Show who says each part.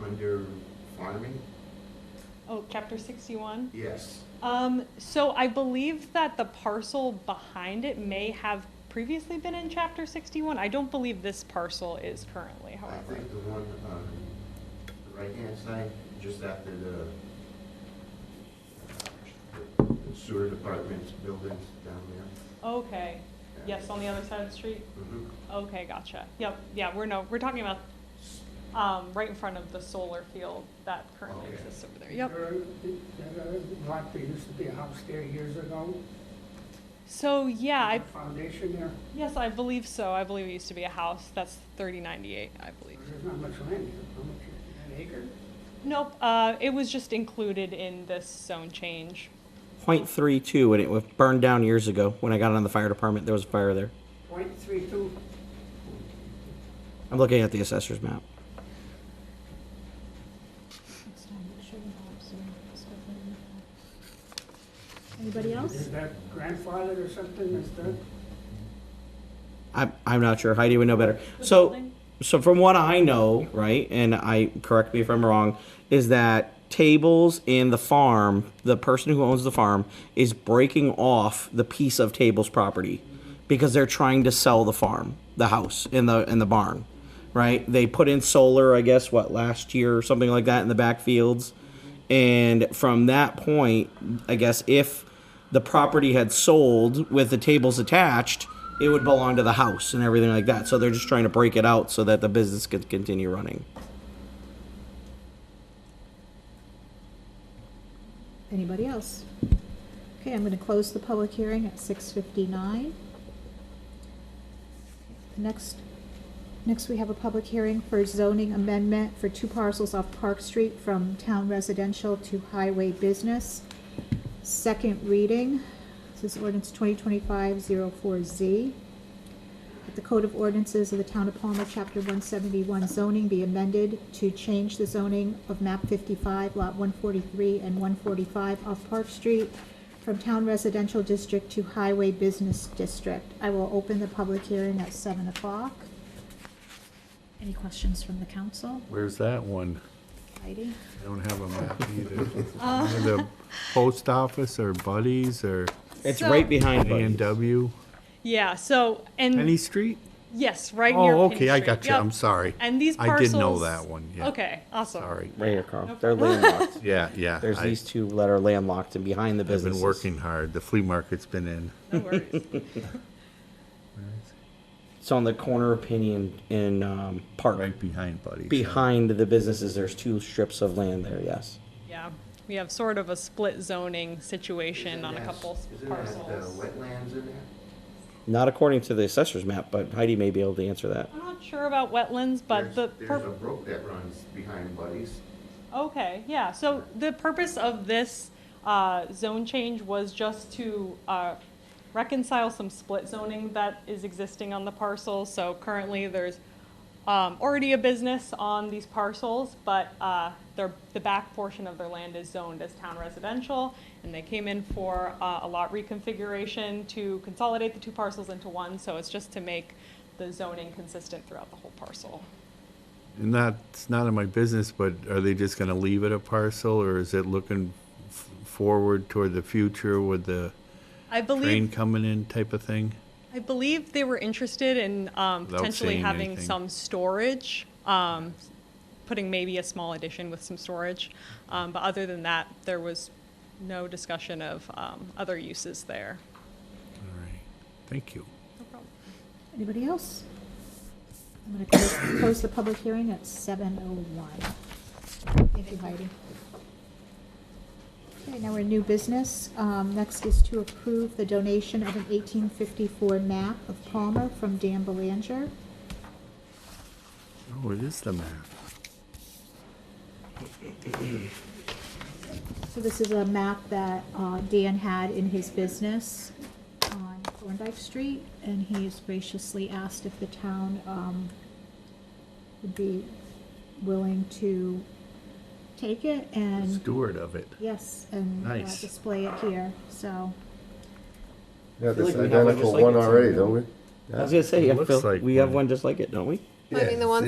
Speaker 1: uh, farming?
Speaker 2: Oh, chapter sixty-one?
Speaker 1: Yes.
Speaker 2: Um, so I believe that the parcel behind it may have previously been in chapter sixty-one. I don't believe this parcel is currently,
Speaker 1: I
Speaker 2: however.
Speaker 1: think the one on the right-hand side, just after the uh, the sewer department's buildings down there.
Speaker 2: Okay,
Speaker 1: Yeah.
Speaker 2: yes, on the other side of the street?
Speaker 1: Mhm.
Speaker 2: Okay, gotcha. Yep, yeah, we're no, we're talking about, um, right in front of the solar field that currently
Speaker 1: Okay.
Speaker 2: exists over there. Yep.
Speaker 3: There- there- there- Like, there used to be a house there years ago.
Speaker 2: So, yeah, I,
Speaker 3: The Foundation there,
Speaker 2: yes, I believe so. I believe it used to be a house. That's thirty ninety-eight, I believe.
Speaker 1: Mm-hmm.
Speaker 3: there's not much land there, how much, an acre?
Speaker 2: Nope, uh, it was just included in this zone change.
Speaker 4: 0.32 and it was burned down years ago when I got on the fire department. There was a fire there.
Speaker 3: Point three two,
Speaker 4: I'm looking at the assessor's map.
Speaker 5: Anybody else?
Speaker 3: is that grandfathered or something, is that?
Speaker 4: I'm, I'm not sure. Heidi would know better. So,
Speaker 2: building?
Speaker 4: so from what I know, right, and I correct me if I'm wrong, is that tables in the farm, the person who owns the farm is breaking off the piece of tables property because they're trying to sell the farm, the house, and the and the barn, right? They put in solar, I guess, what last year or something like that in the backfields, and from that point, I guess if the property had sold with the tables attached, it would belong to the house and everything like that. So they're just trying to break it out so that the business could continue running.
Speaker 5: Anybody else? Okay, I'm going to close the public hearing at 6:59. Next, next we have a public hearing for zoning amendment for two parcels off Park Street from town residential to highway business. Second reading, this is ordinance 2025-04Z. That the Code of Ordinances of the Town of Palmer, Chapter 171 zoning be amended to change the zoning of map 55, lot 143 and 145 off Park Street from Town Residential District to Highway Business District. I will open the public hearing at 7 o'clock. Any questions from the council?
Speaker 6: Where's that one?
Speaker 5: Heidi?
Speaker 6: I don't have a map either.
Speaker 2: Uh.
Speaker 6: Near The post office or Buddies or
Speaker 4: It's
Speaker 2: So-
Speaker 4: right behind
Speaker 6: A and
Speaker 4: Buddy's.
Speaker 6: W?
Speaker 2: Yeah, so, and.
Speaker 6: Penny Street?
Speaker 2: Yes, right near.
Speaker 6: Oh,
Speaker 2: Pin
Speaker 6: okay, I
Speaker 2: Street.
Speaker 6: got you.
Speaker 2: Yep.
Speaker 6: I'm sorry.
Speaker 2: And these
Speaker 6: I
Speaker 2: parcels.
Speaker 6: did know that one, yeah.
Speaker 2: Okay, awesome.
Speaker 6: Sorry.
Speaker 4: Right here, Carl. They're landlocked.
Speaker 6: Yeah, yeah.
Speaker 4: There's
Speaker 6: I-
Speaker 4: these two that are landlocked and behind the
Speaker 6: I've
Speaker 4: business.
Speaker 6: been working hard. The flea market's been in.
Speaker 2: No worries.
Speaker 4: It's on the corner of Pinion in um, Park.
Speaker 6: Right behind Buddies.
Speaker 4: Behind the businesses, there's two strips of land there. Yes.
Speaker 2: Yeah, we have sort of a split zoning situation on a
Speaker 1: Isn't that-
Speaker 2: couple s-
Speaker 1: Isn't that the
Speaker 2: parcels.
Speaker 1: wetlands in there?
Speaker 4: Not according to the assessor's map, but Heidi may be able to answer that.
Speaker 2: I'm not sure about wetlands, but
Speaker 1: There's-
Speaker 2: the.
Speaker 1: There's
Speaker 2: purp-
Speaker 1: a brook that runs behind Buddies.
Speaker 2: Okay, yeah, so the purpose of this uh, zone change was just to uh, reconcile some split zoning that is existing on the parcel. So currently, there's um, already a business on these parcels, but uh, their, the back portion of their land is zoned as town residential. And they came in for uh, a lot reconfiguration to consolidate the two parcels into one. So it's just to make the zoning consistent throughout the whole parcel.
Speaker 6: And that's not in my business, but are they just gonna leave it a parcel or is it looking f- forward toward the future with the
Speaker 2: I believe.
Speaker 6: train coming in type of thing?
Speaker 2: I believe they were interested in um,
Speaker 6: Without
Speaker 2: potentially
Speaker 6: saying
Speaker 2: having
Speaker 6: anything.
Speaker 2: some storage, um, putting maybe a small addition with some storage. Um, but other than that, there was no discussion of um, other uses there.
Speaker 6: All right. Thank you.
Speaker 2: No problem.
Speaker 5: Anybody else? I'm going to close, close the public hearing at 7:01. Thank you, Heidi. Okay, now we're in new business. Um, next is to approve the donation of an 1854 map of Palmer from Dan Belanger.
Speaker 6: Oh, it is the map.
Speaker 5: So this is a map that, uh, Dan had in his business on Thorndike Street, and he has graciously asked if the town, um, would be willing to take it and.
Speaker 6: Steward of it.
Speaker 5: Yes, and uh,
Speaker 6: Nice.
Speaker 5: display it here, so.
Speaker 7: Yeah,
Speaker 4: feel like
Speaker 7: this
Speaker 4: we have one
Speaker 7: identical
Speaker 4: just like
Speaker 7: one
Speaker 4: it's in
Speaker 7: already,
Speaker 4: the-
Speaker 7: don't we?
Speaker 4: I was gonna say,
Speaker 6: It
Speaker 4: I
Speaker 6: looks
Speaker 4: feel,
Speaker 6: like
Speaker 4: we have
Speaker 6: one.
Speaker 4: one just like it, don't we?
Speaker 7: Yeah,
Speaker 8: I mean, the one